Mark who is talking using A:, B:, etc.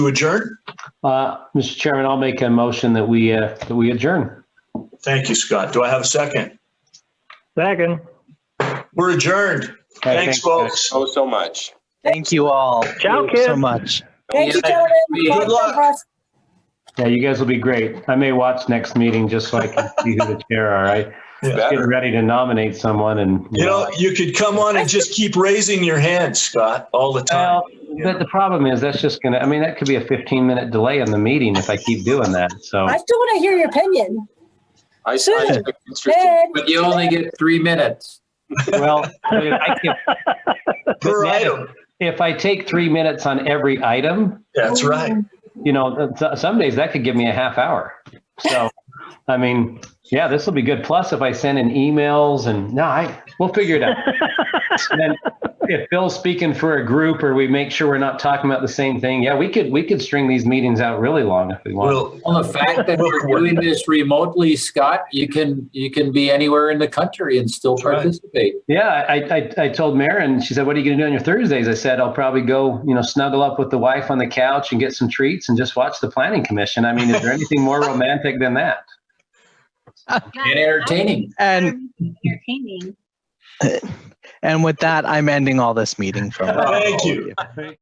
A: to adjourn?
B: Uh, Mr. Chairman, I'll make a motion that we, uh, that we adjourn.
A: Thank you, Scott. Do I have a second?
C: Second.
A: We're adjourned.
B: Hey,
A: Thanks, folks.
D: so, so much.
E: Thank you all.
C: Ciao,
E: Thank you So
C: kids.
E: much.
F: Thank you,
D: Yeah.
F: gentlemen.
A: Good luck.
B: Yeah, you guys will be great. I may watch next meeting just so I can see who the chair, all right? Get
D: Better.
B: ready to nominate someone and.
A: You know, you could come on and just keep raising your hand, Scott, all the time.
B: Well, but the problem is, that's just gonna, I mean, that could be a 15-minute delay in the meeting if I keep doing that, so.
F: I still want to hear your opinion.
D: I, I
F: Sure.
D: took interest in
F: Ed,
G: But you only get three minutes.
B: Well, I mean, I can-
A: Per
B: yeah.
A: item.
B: if I take three minutes on every item,
A: That's right.
B: you know, th- some days that could give me a half hour. So, I mean, yeah, this will be good. Plus, if I send in emails and, no, I, we'll figure it out. And then if Bill's speaking for a group or we make sure we're not talking about the same thing, yeah, we could, we could string these meetings out really long if we want.
A: Well,
G: Well, the fact that we're doing this remotely, Scott, you can, you can be anywhere in the country and still
A: That's right.
G: participate.
B: Yeah, I, I, I told Marin, she said, what are you going to do on your Thursdays? I said, I'll probably go, you know, snuggle up with the wife on the couch and get some treats and just watch the planning commission. I mean, is there anything more romantic than that?
G: And entertaining.
E: And
H: Entertaining.
E: and with that, I'm ending all this meeting from.
A: Thank you.